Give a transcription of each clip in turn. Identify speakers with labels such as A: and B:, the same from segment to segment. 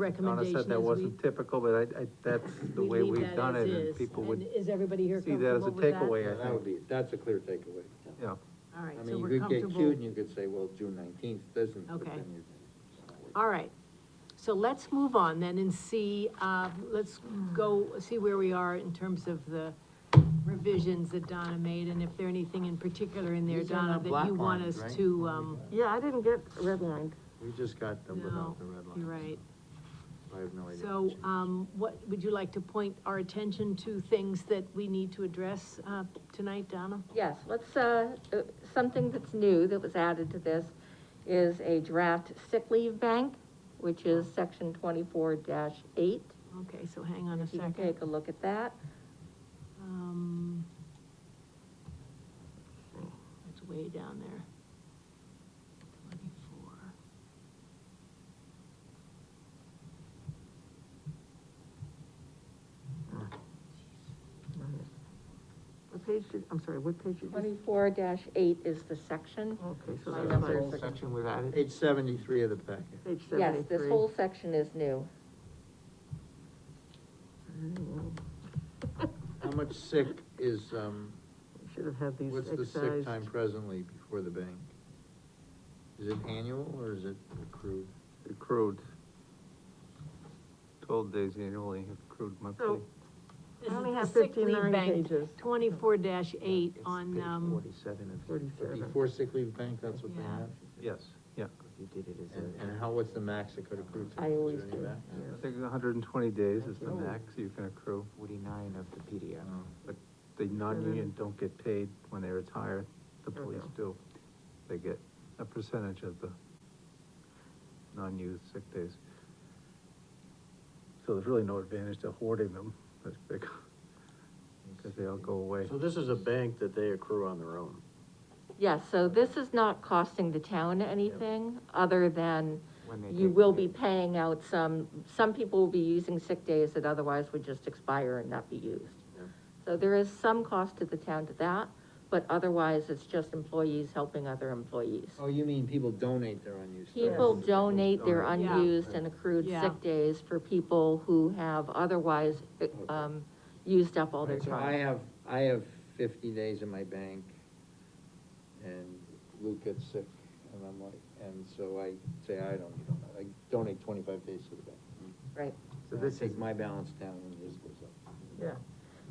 A: Donna
B: recommendation
A: said that
B: is we,
A: wasn't typical, but I, I, that's the
B: we
A: way
B: leave
A: we've
B: that
A: done
B: as
A: it, and
B: is.
A: people
B: And
A: would
B: Is everybody here
A: see that as a
B: comfortable with that?
A: takeaway,
C: Yeah,
A: I
C: that would
A: think,
C: be, that's a clear takeaway.
A: yeah.
B: All right,
C: I
B: so
C: mean,
B: we're
C: you could get cute
B: comfortable.
C: and you could say, well, June nineteenth doesn't. but
B: Okay.
C: then you-
B: All right, so let's move on then and see, uh, let's go, see where we are in terms of the revisions that Donna made, and if there anything in particular in there,
C: These are
B: Donna,
C: not
B: that you
C: black
B: want
C: lines,
B: us
C: right?
B: to, um,
D: Yeah, I didn't get redlined.
C: We just got them
B: no,
C: without the red
B: you're
C: line.
B: right.
C: I have no idea.
B: So, um, what, would you like to point our attention to things that we need to address, uh, tonight, Donna?
D: Yes, let's, uh, uh, something that's new that was added to this is a draft sick leave bank, which is section twenty-four eight.
B: Okay, so hang on a
D: If you can
B: second.
D: take a look at that.
B: Um, it's way down there. Twenty-four.
E: What page did, I'm sorry, what page did you?
D: Twenty-four eight is the section.
E: Okay, so
D: My
E: that
D: numbers
E: whole
D: are-
E: section was added,
C: Page seventy-three of the packet.
E: page
D: Yes,
E: seventy-three.
D: this whole section is new.
C: How much sick is, um,
E: Should have had these
C: what's the sick
E: excised.
C: time presently before the bank? Is it annual or is it accrued?
A: Accrued. Twelve days annually, accrued monthly.
E: So,
B: This
E: I
B: is
E: only
B: the
E: have
B: sick leave
E: 59
B: bank,
E: pages.
B: twenty-four dash eight
C: It's
B: on,
C: page
B: um,
C: Forty-seven and
E: Forty-seven.
C: Before sick leave bank, that's what they
B: Yeah.
C: have?
A: Yes, yeah,
F: You did it as
C: And,
F: a.
C: and how, what's the max it could accrue to?
D: I
C: Is there
D: always
C: any
D: do.
C: max?
A: I think hundred and twenty days is the
F: Thank you.
A: max you can accrue,
F: Forty-nine of the
C: I
F: PDF.
C: don't know.
A: but the non-union
D: Mm-hmm.
A: don't get paid when they retire, the police do. They get a percentage of the non-used sick days. So there's really no advantage to hoarding them, that's big, because they all go away.
G: So this is a bank that they accrue on their own.
D: Yes, so this is not costing the town anything, other than
F: When they
D: you
F: take
D: will
F: the-
D: be paying out some, some people will be using sick days that otherwise would just expire and not be used. So there is some cost to the town to that, but otherwise it's just employees helping other employees.
C: Oh, you mean people donate their unused? time?
D: People donate their
B: Yeah.
D: unused and accrued
B: Yeah.
D: sick days for people who have otherwise, um, used up all their
C: Right, So I
D: time.
C: have, I have fifty days in my bank, and Luke gets sick, and I'm like, and so I say, I don't, need all that." I donate twenty-five days to the bank.
D: Right,
C: So this takes my balance down and his goes up.
E: Yeah,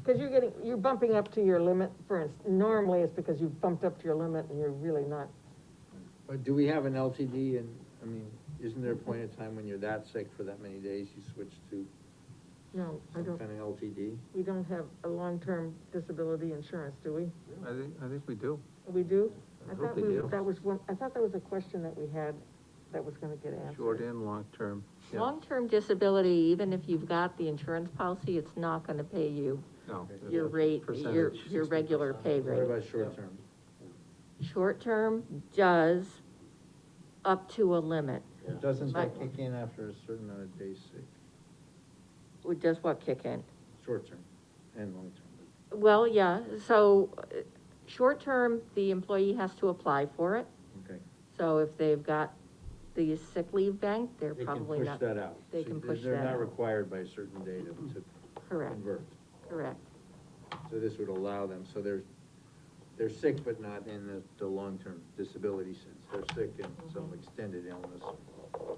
E: because you're getting, you're bumping up to your limit, for instance, normally it's because you've bumped up to your limit and you're really not,
C: But do we have an LTD, and, I mean, isn't there a point in time when you're that sick for that many days, you switch to
E: no, I
C: some
E: don't,
C: kind of LTD?
E: we don't have a long-term disability insurance, do we?
A: I think, I think we do.
E: We do?
A: I
E: I
A: hope
E: thought
A: they
E: we,
A: do.
E: that was one, I thought that was a question that we had that was gonna get answered.
A: Short and long term, yeah,
D: long-term disability, even if you've got the insurance policy, it's not gonna pay you
A: no.
D: your rate, your,
A: Percentage.
D: your regular pay
C: What
D: rate.
C: about short-term?
D: Short-term does up to a limit.
C: Doesn't that
D: Right.
C: kick in after a certain amount of days sick,
D: Does what kick in?
C: short-term and long-term?
D: Well, yeah, so, uh, short-term, the employee has to apply for it.
C: Okay.
D: So if they've got the sick leave bank, they're
C: They can
D: probably
C: push
D: not.
C: that out.
D: they
C: So
D: can push
C: They're
D: that
C: not
D: out.
C: required by a certain date of- to
D: Correct,
C: convert,
D: correct.
C: so this would allow them, so they're, they're sick, but not in the, the long-term disability sense, they're sick in
D: Mm-hmm.
C: some extended illness.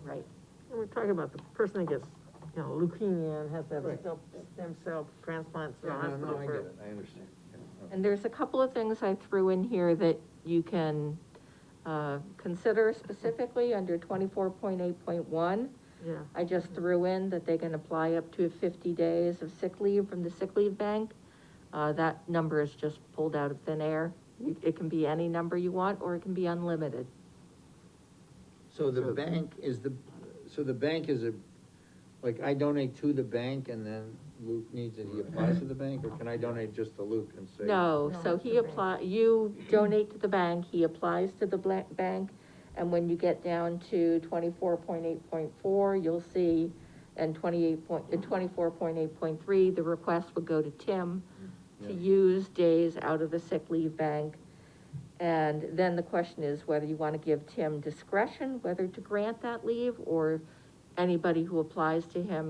D: Right,
E: And We're talking about the person that gets, you know, leukemia and has to have a
C: Right.
E: cell- stem cell transplant, so
C: Yeah, no, no,
E: hospital
C: I get
E: for.
C: it, I understand. Yeah,
D: and there's a couple of things I threw in here that you can, uh, consider specifically under twenty-four point eight point one.
E: Yeah,
D: I just threw in that they can apply up to fifty days of sick leave from the sick leave bank. Uh, that number is just pulled out of thin air. You- It can be any number you want, or it can be unlimited.
C: So the bank is the, so the bank is a, like, I donate to the bank and then Luke needs it, he applies to the bank, or can I donate just to Luke and say?
D: No,
E: No,
D: so
E: it's
D: he
E: the bank.
D: apply, you donate to the bank, he applies to the bla- bank, and when you get down to twenty-four point eight point four, you'll see, and twenty-eight point, uh, twenty-four point eight point three, the request would go to Tim to
C: Mm-hmm. Yeah.
D: use days out of the sick leave bank. And then the question is whether you wanna give Tim discretion, whether to grant that leave, or anybody who applies to him